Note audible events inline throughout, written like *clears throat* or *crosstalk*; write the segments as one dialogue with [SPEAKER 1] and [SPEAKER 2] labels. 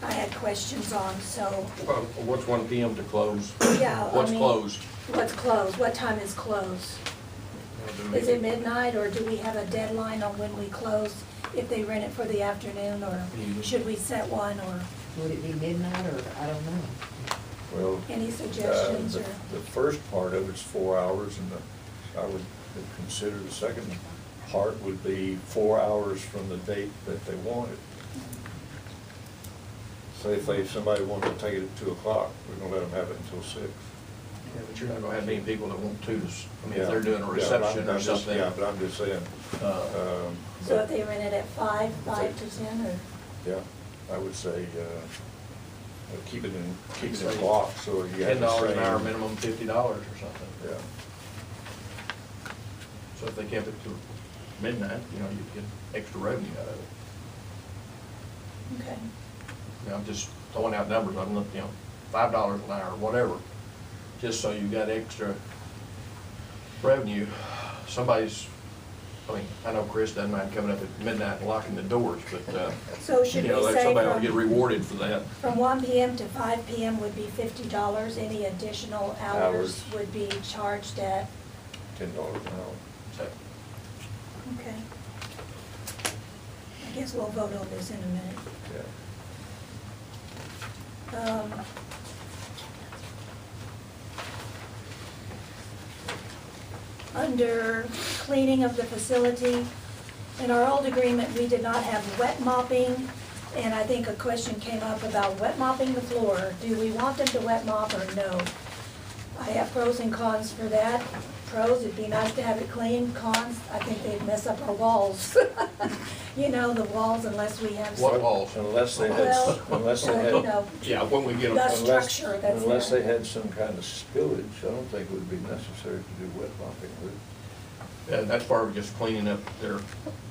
[SPEAKER 1] had questions on, so,
[SPEAKER 2] Well, What's one PM to close?
[SPEAKER 1] yeah, I
[SPEAKER 2] What's
[SPEAKER 1] mean,
[SPEAKER 2] closed?
[SPEAKER 1] What's closed? What time is closed? Is it midnight, or do we have a deadline on when we close, if they rent it for the afternoon, or
[SPEAKER 2] Mhm.
[SPEAKER 1] should we set one, or
[SPEAKER 3] Would it be midnight or, I don't know.
[SPEAKER 4] Well,
[SPEAKER 1] any
[SPEAKER 4] uh,
[SPEAKER 1] suggestions,
[SPEAKER 4] the
[SPEAKER 1] or?
[SPEAKER 4] the first part of it's four hours, and the- I would consider the second part would be four hours from the date that they wanted.
[SPEAKER 1] Mm-hmm.
[SPEAKER 4] Say if they, somebody wanted to take it at two o'clock, we're gonna let them have it until six.
[SPEAKER 2] Yeah, but you're not gonna have many people that want to, s- I mean,
[SPEAKER 4] Yeah.
[SPEAKER 2] if they're doing
[SPEAKER 4] Yeah,
[SPEAKER 2] a
[SPEAKER 4] but
[SPEAKER 2] reception
[SPEAKER 4] I'm-
[SPEAKER 2] or
[SPEAKER 4] I'm just-
[SPEAKER 2] something.
[SPEAKER 4] Yeah, but I'm just saying.
[SPEAKER 2] uh,
[SPEAKER 4] um,
[SPEAKER 1] So
[SPEAKER 4] but-
[SPEAKER 1] if they rent it at five, five to ten, or,
[SPEAKER 4] Yeah, I would say, uh, uh, keep it in, keep it
[SPEAKER 2] Say
[SPEAKER 4] in block, so you have
[SPEAKER 2] Ten
[SPEAKER 4] the same.
[SPEAKER 2] dollars an hour, minimum fifty dollars or something.
[SPEAKER 4] Yeah,
[SPEAKER 2] So if they kept it to midnight, you know, you'd get extra revenue out of it.
[SPEAKER 1] okay.
[SPEAKER 2] You know, I'm just throwing out numbers, I'm looking, you know, five dollars an hour, whatever, just so you got extra revenue. Somebody's, I mean, I know Chris doesn't mind coming up at midnight and locking the doors, but, uh,
[SPEAKER 1] *laughs* So should
[SPEAKER 2] you
[SPEAKER 1] we
[SPEAKER 2] know, that
[SPEAKER 1] say
[SPEAKER 2] somebody ought to get
[SPEAKER 1] from-
[SPEAKER 2] rewarded for that.
[SPEAKER 1] From one PM to five PM would be fifty dollars, any additional hours
[SPEAKER 4] Hours.
[SPEAKER 1] would be charged at,
[SPEAKER 4] ten dollars an hour.
[SPEAKER 2] So,
[SPEAKER 1] okay. I guess we'll vote on this in a minute.
[SPEAKER 4] Yeah.
[SPEAKER 1] Um, Under cleaning of the facility, in our old agreement, we did not have wet mopping, and I think a question came up about wet mopping the floor. Do we want them to wet mop or no? I have pros and cons for that. Pros, it'd be nice to have it clean. Cons, I think they'd mess up our walls. *laughs* You know, the walls unless we have.
[SPEAKER 2] What walls?
[SPEAKER 4] Unless they had,
[SPEAKER 1] Well,
[SPEAKER 4] unless they
[SPEAKER 1] uh,
[SPEAKER 4] had.
[SPEAKER 1] you know,
[SPEAKER 2] Yeah, when we get
[SPEAKER 1] The
[SPEAKER 2] them,
[SPEAKER 4] unless-
[SPEAKER 1] structure, that's
[SPEAKER 4] Unless
[SPEAKER 1] not-
[SPEAKER 4] they had some kind of spillage, I don't think it would be necessary to do wet mopping, would it?
[SPEAKER 2] Yeah, that's part of just cleaning up their,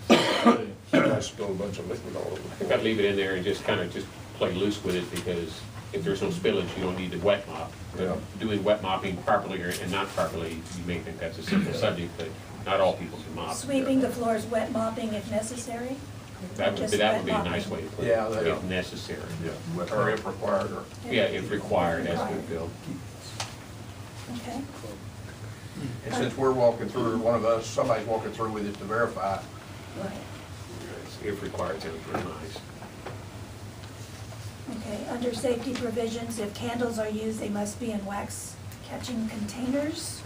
[SPEAKER 2] *coughs*
[SPEAKER 4] Somebody spilled a bunch of liquid all over the
[SPEAKER 5] I
[SPEAKER 4] floor.
[SPEAKER 5] think I'd leave it in there and just kind of just play loose with it because if there's no spillage, you don't need to wet mop.
[SPEAKER 4] Yeah.
[SPEAKER 5] But doing wet mopping properly or, and not properly, you may think that's a simple subject, but not all people can mop.
[SPEAKER 1] Sweeping the floors, wet mopping if necessary?
[SPEAKER 5] That would,
[SPEAKER 1] Just
[SPEAKER 5] be- that
[SPEAKER 1] wet
[SPEAKER 5] would be a
[SPEAKER 1] mopping.
[SPEAKER 5] nice way to put it,
[SPEAKER 2] Yeah, that-
[SPEAKER 5] if necessary.
[SPEAKER 2] or if required, or.
[SPEAKER 5] Yeah, if required, as we feel.
[SPEAKER 1] Okay,
[SPEAKER 2] And since we're walking through, one of us, somebody's walking through with it to verify,
[SPEAKER 1] right,
[SPEAKER 5] If required, sounds very nice.
[SPEAKER 1] okay. Under safety provisions, if candles are used, they must be in wax catching containers.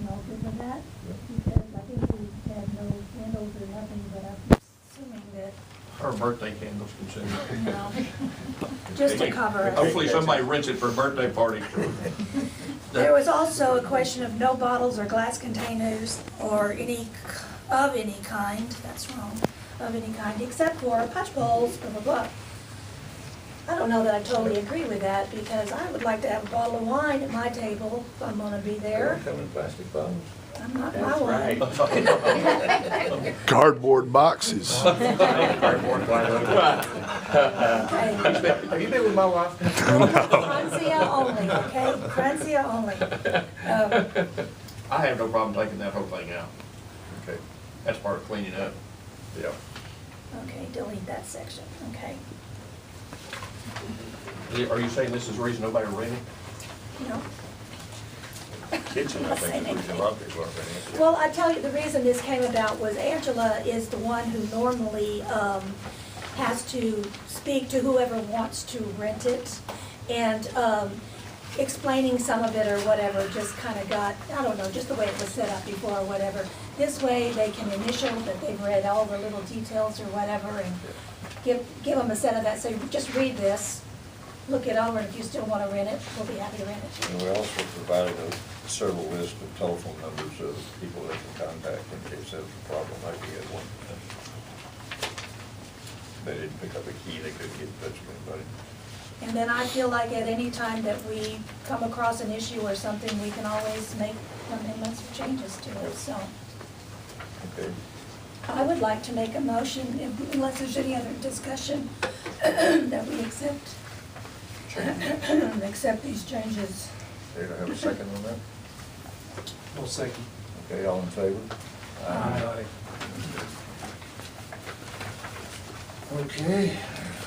[SPEAKER 1] You all good with that? Because I think we had no candles or nothing, but I'm assuming that,
[SPEAKER 2] our birthday candles
[SPEAKER 4] *laughs*
[SPEAKER 2] consumed.
[SPEAKER 1] no. *laughs* Just to cover us.
[SPEAKER 2] Hopefully somebody rents it for a birthday party.
[SPEAKER 1] There was also a question of no bottles or glass containers or any, k- of any kind, that's wrong, of any kind, except for punch bowls, blah, blah, blah. I don't know that I totally agree with that, because I would like to have a bottle of wine at my table if I'm gonna be
[SPEAKER 4] They
[SPEAKER 1] there.
[SPEAKER 4] don't come in plastic bottles.
[SPEAKER 1] I'm not my wine.
[SPEAKER 4] *laughs*
[SPEAKER 6] cardboard boxes.
[SPEAKER 2] *laughs*
[SPEAKER 1] Okay.
[SPEAKER 2] Have you been with my wife?
[SPEAKER 1] Francia only, okay? Francia only. Um,
[SPEAKER 2] I have no problem taking that whole thing out.
[SPEAKER 4] Okay,
[SPEAKER 2] That's part of cleaning up.
[SPEAKER 4] yeah.
[SPEAKER 1] Okay, delete that section, okay?
[SPEAKER 2] Are you saying this is the reason nobody rented?
[SPEAKER 1] No?
[SPEAKER 4] Kitchen, I think, is where a lot of people are renting it.
[SPEAKER 1] Well, I tell you, the reason this came about was Angela is the one who normally um, has to speak to whoever wants to rent it. And um, explaining some of it or whatever just kind of got, I don't know, just the way it was set up before or whatever. This way, they can initial that they've read all the little details or whatever and give, give them a set of that. So just read this, look it over, and if you still want to rent it, we'll be happy to rent it.
[SPEAKER 4] And we also provided a several list of telephone numbers of people they can contact in case there's a problem, like we had one. They didn't pick up a key, they couldn't get in touch with anybody.
[SPEAKER 1] And then I feel like at any time that we come across an issue or something, we can always make amendments or changes to it, so.
[SPEAKER 4] Okay,
[SPEAKER 1] I would like to make a motion, if- unless there's any other discussion, *clears throat* that we accept, *clears throat* accept these changes.
[SPEAKER 4] they don't have a second on that?
[SPEAKER 7] No second.
[SPEAKER 4] Okay, all in favor?
[SPEAKER 7] Aye.
[SPEAKER 4] Okay,